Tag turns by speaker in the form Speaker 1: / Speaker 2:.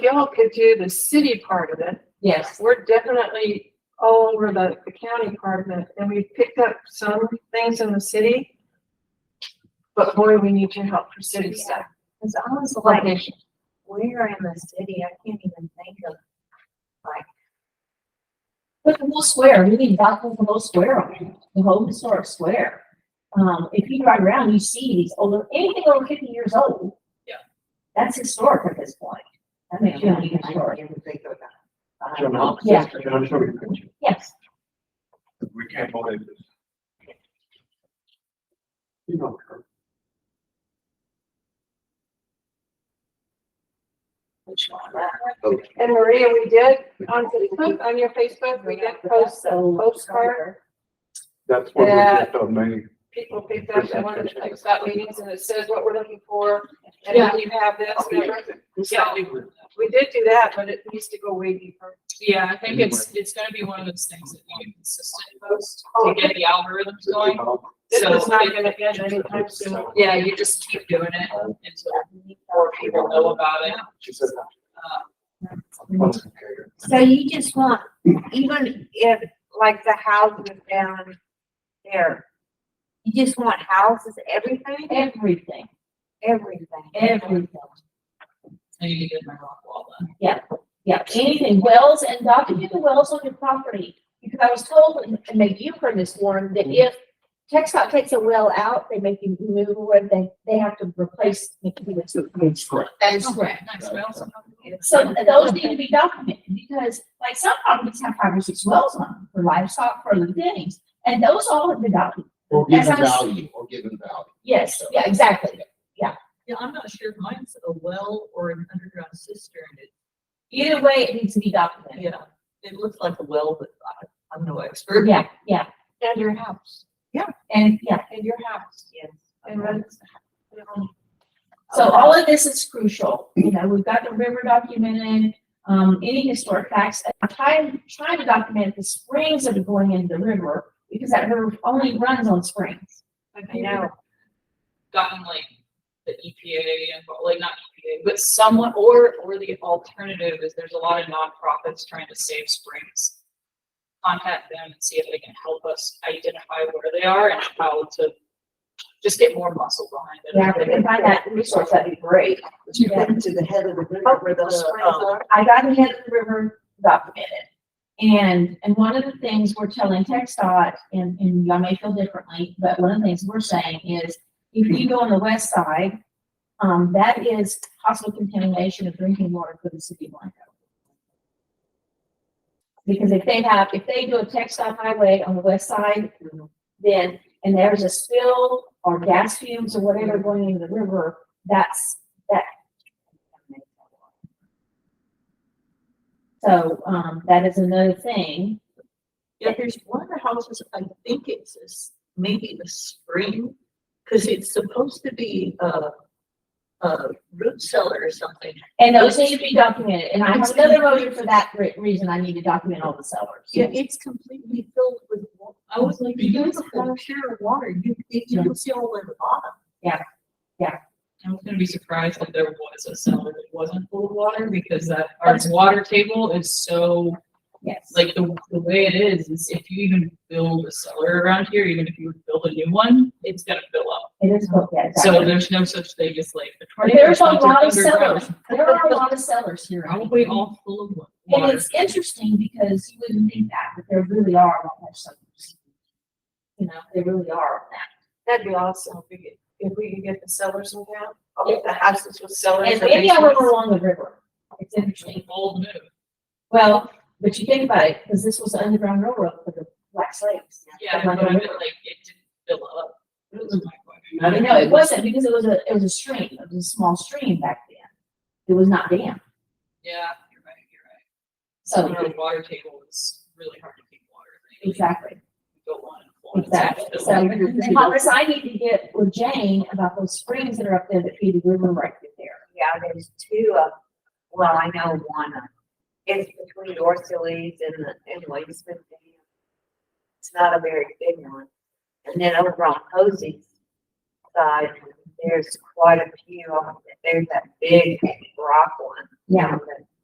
Speaker 1: y'all could do the city part of it.
Speaker 2: Yes,
Speaker 1: We're definitely all over the, the county part of it, and we picked up some things in the city. But boy, we need your help for city stuff.
Speaker 3: Cause I was like,
Speaker 2: location.
Speaker 3: where in the city? I can't even think of.
Speaker 2: But the whole square, we need back with the whole square on it, the whole historic square. Um, if you drive around, you see these older, anything over fifty years old.
Speaker 1: Yeah.
Speaker 2: That's historic at this point. That makes you
Speaker 3: I can't
Speaker 2: historic.
Speaker 3: even think of that.
Speaker 4: John, I'll-
Speaker 2: Yeah.
Speaker 4: John, I'll show you a picture.
Speaker 2: Yes,
Speaker 4: We can't believe this. You know, Kurt,
Speaker 1: And Maria, we did on Facebook, on your Facebook, we did post the
Speaker 2: so.
Speaker 1: postcard.
Speaker 4: that's what we
Speaker 1: Yeah.
Speaker 4: just told me.
Speaker 1: People picked up that one of the like, stop meetings and it says what we're looking for. And then you have this, remember?
Speaker 5: Yeah, we-
Speaker 1: we did do that, but it needs to go way deeper.
Speaker 5: yeah, I think it's, it's gonna be one of those things that you can consistently post
Speaker 1: Oh.
Speaker 5: to get the algorithms going.
Speaker 1: This
Speaker 5: So-
Speaker 1: is not gonna end anytime soon.
Speaker 5: Yeah, you just keep doing it until more people know about it.
Speaker 4: She said,
Speaker 5: Uh,
Speaker 4: "What's okay?"
Speaker 3: So you just want, even if like the houses down there, you just want houses, everything,
Speaker 2: Everything,
Speaker 3: everything.
Speaker 2: everything.
Speaker 5: I need to get my rock wall done.
Speaker 2: Yeah, anything, wells and document the wells on your property. Because I was told, and and maybe you've heard this, Warren, that if Tex Dot takes a well out, they make you move where they, they have to replace. the computer to replace it.
Speaker 5: That's correct. Nice, well, so-
Speaker 2: So those need to be documented because like some properties have five or six wells on them for livestock, for other things. And those all have been documented.
Speaker 6: Or give
Speaker 2: That's
Speaker 6: them
Speaker 2: how-
Speaker 6: value, or give them value.
Speaker 2: Yes, yeah, exactly.
Speaker 7: Yeah, I'm not sure if mine's a well or an underground cistern. It,
Speaker 2: Either way, it needs to be documented.
Speaker 7: yeah, it looks like a well, but I, I'm no expert.
Speaker 2: Yeah, yeah.
Speaker 1: And your house,
Speaker 2: And yeah,
Speaker 1: and your house.
Speaker 3: Yes.
Speaker 1: And Um, then, you know,
Speaker 2: so all of this is crucial. You know, we've got the river documented, um, any historic facts. And I'm trying, trying to document the springs that are going into the river because that river only runs on springs.
Speaker 1: I know.
Speaker 5: Gotten like the EPA and, like not EPA, but someone, or, or the alternative is there's a lot of nonprofits trying to save springs. Contact them and see if they can help us identify where they are and how to just get more muscle behind it.
Speaker 2: Yeah, if we can find that resource, that'd be great.
Speaker 8: You
Speaker 2: Yeah.
Speaker 8: went to the head of the river where those
Speaker 2: the,
Speaker 8: springs
Speaker 2: um,
Speaker 8: are.
Speaker 2: I got ahead of the river documented. And, and one of the things we're telling Text dot, and, and y'all may feel differently, but one of the things we're saying is, if you go on the west side, um, that is possible contamination of drinking water for the city of Blanco. Because if they have, if they do a Text dot highway on the west side, then, and there's a spill or gas fumes or whatever going into the river, that's, that. So, um, that is another thing.
Speaker 7: Yeah, there's one of the houses, I think it's this, maybe the spring, because it's supposed to be a, a root cellar or something.
Speaker 2: And those need to be documented, and I have another motion for that re- reason, I need to document all the sellers.
Speaker 7: Yeah, it's completely filled with, wa- I was like, beautiful, pure water. You, you can see all the way to the bottom.
Speaker 5: I was gonna be surprised if there was a cellar that wasn't full of water, because that, our water table is so,
Speaker 2: Yes.
Speaker 5: like, the, the way it is, is if you even build a cellar around here, even if you build a new one, it's gonna fill up.
Speaker 2: It is, both, yeah,
Speaker 5: So
Speaker 2: exactly.
Speaker 5: there's no such thing as like. the
Speaker 2: But There's a
Speaker 5: tornado
Speaker 2: lot of
Speaker 5: comes in underground.
Speaker 2: sellers, there are a lot of sellers here.
Speaker 5: Probably all full of
Speaker 2: And
Speaker 5: water.
Speaker 2: it's interesting because you wouldn't think that, but there really are a lot more sellers. You know, they really are.
Speaker 1: That'd be awesome if we could, if we could get the cellars in town, I'll get the houses with cellars.
Speaker 2: And
Speaker 1: or
Speaker 2: maybe I went
Speaker 1: basements.
Speaker 2: along the river. It's interesting.
Speaker 5: Bold move.
Speaker 2: Well, but you think about it, because this was the Underground Railroad for the Black Slaves.
Speaker 5: Yeah, but I mean, like, it didn't fill up. That was my question.
Speaker 2: You know, it wasn't because it was a, it was a stream, it was a small stream back then. It was not dammed.
Speaker 5: Yeah, you're right, you're right.
Speaker 2: So,
Speaker 5: Our water table is really hard to keep water. in.
Speaker 2: exactly,
Speaker 5: Go on. and on.
Speaker 2: exactly. So, and Congress, I need to get with Jane about those springs that are up there that feed the river right through there.
Speaker 3: Yeah, there's two of, well, I know one of, it's between Dorsaley's and the, and Williamson Dam. It's not a very big one. And then over on Hosey's side, there's quite a few of them. There's that big rock one.
Speaker 2: Yeah.
Speaker 3: down there.